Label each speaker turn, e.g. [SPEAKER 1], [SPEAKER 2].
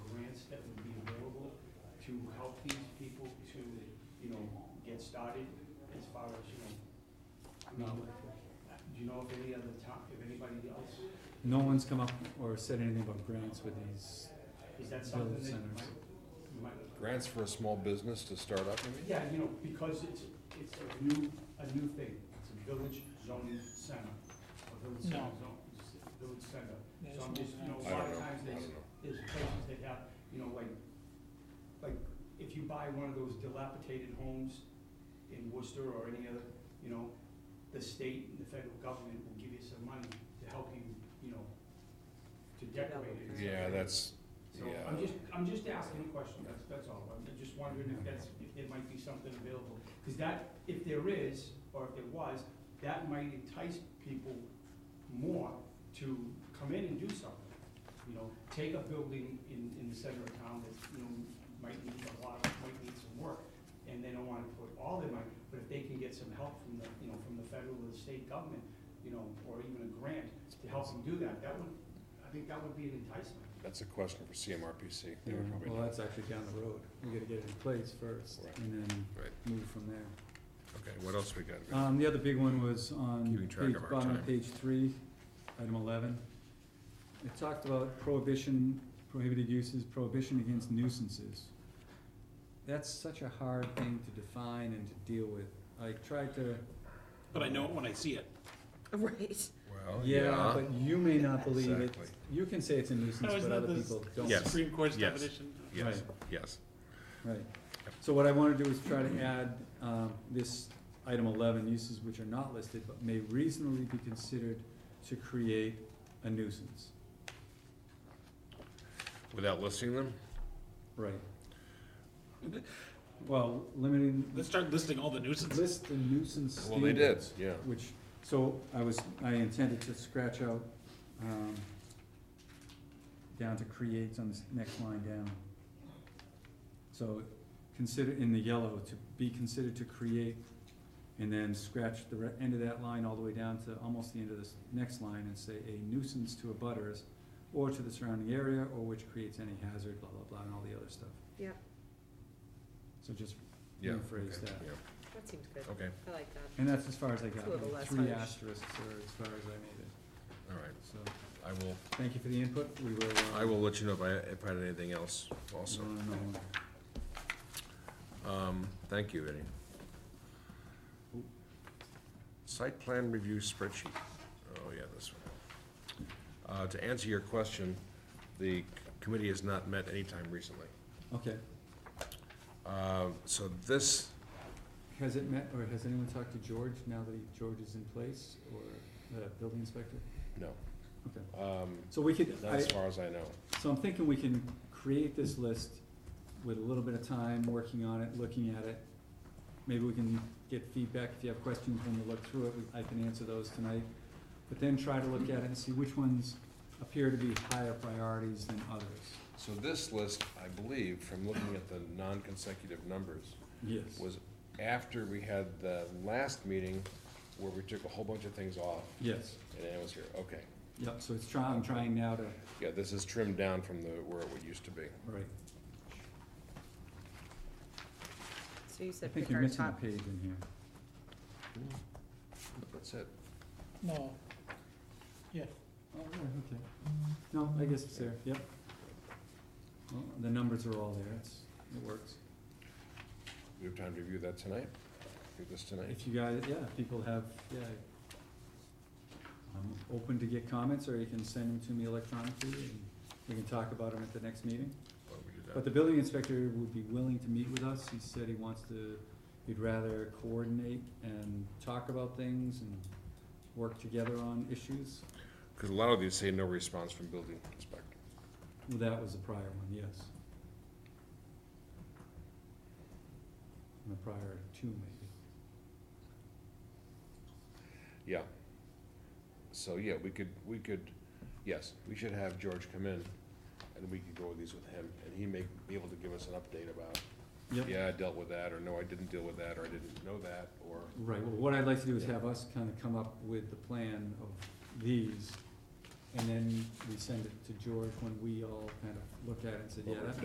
[SPEAKER 1] help these people to, you know, get started as far as, you know, I mean, do you know if any other town, if anybody else,
[SPEAKER 2] No one's come up or said anything about grants with these,
[SPEAKER 1] is that something that you
[SPEAKER 2] Village
[SPEAKER 1] might,
[SPEAKER 2] centers.
[SPEAKER 1] you might?
[SPEAKER 3] Grants for a small business to start up, you mean?
[SPEAKER 1] Yeah, you know, because it's, it's a new, a new thing, it's a village zoning center, a village center
[SPEAKER 4] No.
[SPEAKER 1] zone, it's a village center.
[SPEAKER 4] There's
[SPEAKER 1] So I'm
[SPEAKER 4] no
[SPEAKER 1] just, you know,
[SPEAKER 4] grants.
[SPEAKER 1] a
[SPEAKER 3] I
[SPEAKER 1] lot of
[SPEAKER 3] don't know, I
[SPEAKER 1] times
[SPEAKER 3] don't
[SPEAKER 1] there's,
[SPEAKER 3] know.
[SPEAKER 1] there's places that have, you know, like, like, if you buy one of those dilapidated homes in Worcester or any other, you know, the state and the federal government will give you some money to help you, you know, to decorate it.
[SPEAKER 3] Yeah, that's,
[SPEAKER 1] So
[SPEAKER 3] Yeah.
[SPEAKER 1] I'm just, I'm just asking a question, that's, that's all, I'm just wondering if that's, if there might be something available. Because that, if there is, or if there was, that might entice people more to come in and do something. You know, take a building in, in the center of town that, you know, might need a lot, of- might need some work, and they don't wanna put all their money, but if they can get some help from the, you know, from the federal or the state government, you know, or even a grant to help them do that, that would, I think that would be an enticement.
[SPEAKER 3] that's a question for CMRPC. They
[SPEAKER 2] you
[SPEAKER 3] would
[SPEAKER 2] know,
[SPEAKER 3] probably
[SPEAKER 2] well,
[SPEAKER 3] know.
[SPEAKER 2] that's actually down the road. We gotta get it in place first
[SPEAKER 3] Right.
[SPEAKER 2] and then
[SPEAKER 3] Right.
[SPEAKER 2] move from there.
[SPEAKER 3] Okay, what else we got?
[SPEAKER 2] Um, the other big one was
[SPEAKER 3] Keeping
[SPEAKER 2] on
[SPEAKER 3] track
[SPEAKER 2] page,
[SPEAKER 3] of our
[SPEAKER 2] bottom
[SPEAKER 3] time.
[SPEAKER 2] of page three, item eleven. It talked about prohibition, prohibited uses, prohibition against nuisances. That's such a hard thing to define and to deal with. I tried to,
[SPEAKER 4] But I know it when I see it.
[SPEAKER 5] Right.
[SPEAKER 3] Well,
[SPEAKER 2] yeah, but you may not believe it.
[SPEAKER 3] Exactly.
[SPEAKER 2] You can say it's a nuisance,
[SPEAKER 4] No, isn't
[SPEAKER 2] but
[SPEAKER 4] that
[SPEAKER 2] other
[SPEAKER 4] the
[SPEAKER 2] people don't.
[SPEAKER 3] Yes.
[SPEAKER 4] Supreme Court's
[SPEAKER 3] yes.
[SPEAKER 4] definition.
[SPEAKER 3] Yes,
[SPEAKER 2] Right.
[SPEAKER 3] yes.
[SPEAKER 2] Right, so what I wanna do is try to add, um, this item eleven, uses which are not listed but may reasonably be considered to create a nuisance.
[SPEAKER 3] Without listing them?
[SPEAKER 2] Right. Well, limiting,
[SPEAKER 4] Let's start listing all the nuisances.
[SPEAKER 2] list the nuisance standards.
[SPEAKER 3] Well, they did, yeah.
[SPEAKER 2] Which, so I was, I intended to scratch out, um, down to creates on this next line down. So consider, in the yellow, to be considered to create, and then scratch the re- end of that line all the way down to almost the end of this next line and say a nuisance to abutters or to the surrounding area, or which creates any hazard, blah, blah, blah, and all the other stuff.
[SPEAKER 5] Yep.
[SPEAKER 2] So just
[SPEAKER 3] Yeah.
[SPEAKER 2] rephrase
[SPEAKER 3] okay,
[SPEAKER 2] that.
[SPEAKER 3] yeah.
[SPEAKER 5] That seems good.
[SPEAKER 3] Okay,
[SPEAKER 5] I like that.
[SPEAKER 2] And that's as far as I
[SPEAKER 5] It's
[SPEAKER 2] got,
[SPEAKER 5] a little
[SPEAKER 2] like
[SPEAKER 5] less
[SPEAKER 2] three
[SPEAKER 5] harsh.
[SPEAKER 2] asterisks are as far as I made it,
[SPEAKER 3] all right.
[SPEAKER 2] so,
[SPEAKER 3] I will,
[SPEAKER 2] thank you for the input, we will. uh,
[SPEAKER 3] I will let you know if I, if I had anything else also.
[SPEAKER 2] go on and on.
[SPEAKER 3] Um, thank you, Eddie. Site plan review spreadsheet. Oh, yeah, this one. Uh, to answer your question, the committee has not met anytime recently.
[SPEAKER 2] Okay,
[SPEAKER 3] Uh, so this,
[SPEAKER 2] has it met, or has anyone talked to George now that he- George is in place, or the building inspector?
[SPEAKER 3] no,
[SPEAKER 2] Okay,
[SPEAKER 3] um,
[SPEAKER 2] so we could,
[SPEAKER 3] not
[SPEAKER 2] I,
[SPEAKER 3] as far as I know.
[SPEAKER 2] so I'm thinking we can create this list with a little bit of time, working on it, looking at it. Maybe we can get feedback, if you have questions when we look through it, we- I can answer those tonight. But then try to look at it and see which ones appear to be higher priorities than others.
[SPEAKER 3] So this list, I believe, from looking at the non-consecutive numbers,
[SPEAKER 2] Yes.
[SPEAKER 3] was after we had the last meeting where we took a whole bunch of things off
[SPEAKER 2] Yes,
[SPEAKER 3] and it was here, okay.
[SPEAKER 2] yep, so it's trying, I'm trying now to,
[SPEAKER 3] Yeah, this is trimmed down from the, where it would used to be.
[SPEAKER 2] right,
[SPEAKER 5] So you
[SPEAKER 2] I
[SPEAKER 5] said
[SPEAKER 2] think
[SPEAKER 5] pick
[SPEAKER 2] you're
[SPEAKER 5] our
[SPEAKER 2] missing a
[SPEAKER 5] top.
[SPEAKER 2] page in here.
[SPEAKER 3] That's it.
[SPEAKER 4] No. Yeah.
[SPEAKER 2] Oh, yeah, okay. No, I guess it's there, yep. Well, the numbers are all there, it's, it works.
[SPEAKER 3] We have time to review that tonight? Do this tonight?
[SPEAKER 2] If you guys, yeah, if people have, yeah. I'm open to get comments, or you can send them to me electronically, and we can talk about them at the next meeting.
[SPEAKER 3] Why don't we do that?
[SPEAKER 2] But the building inspector would be willing to meet with us, he said he wants to, he'd rather coordinate and talk about things and work together on issues.
[SPEAKER 3] Because a lot of these say no response from building inspector.
[SPEAKER 2] Well, that was the prior one, yes. And the prior two, maybe.
[SPEAKER 3] Yeah. So, yeah, we could, we could, yes, we should have George come in and we could go with these with him and he may be able to give us an update about,
[SPEAKER 2] Yep,
[SPEAKER 3] yeah, I dealt with that, or no, I didn't deal with that, or I didn't know that, or,
[SPEAKER 2] right, well, what I'd like to do is have us kind of come up with the plan of these, and then we send it to George when we all kind of look at it and say, yeah, that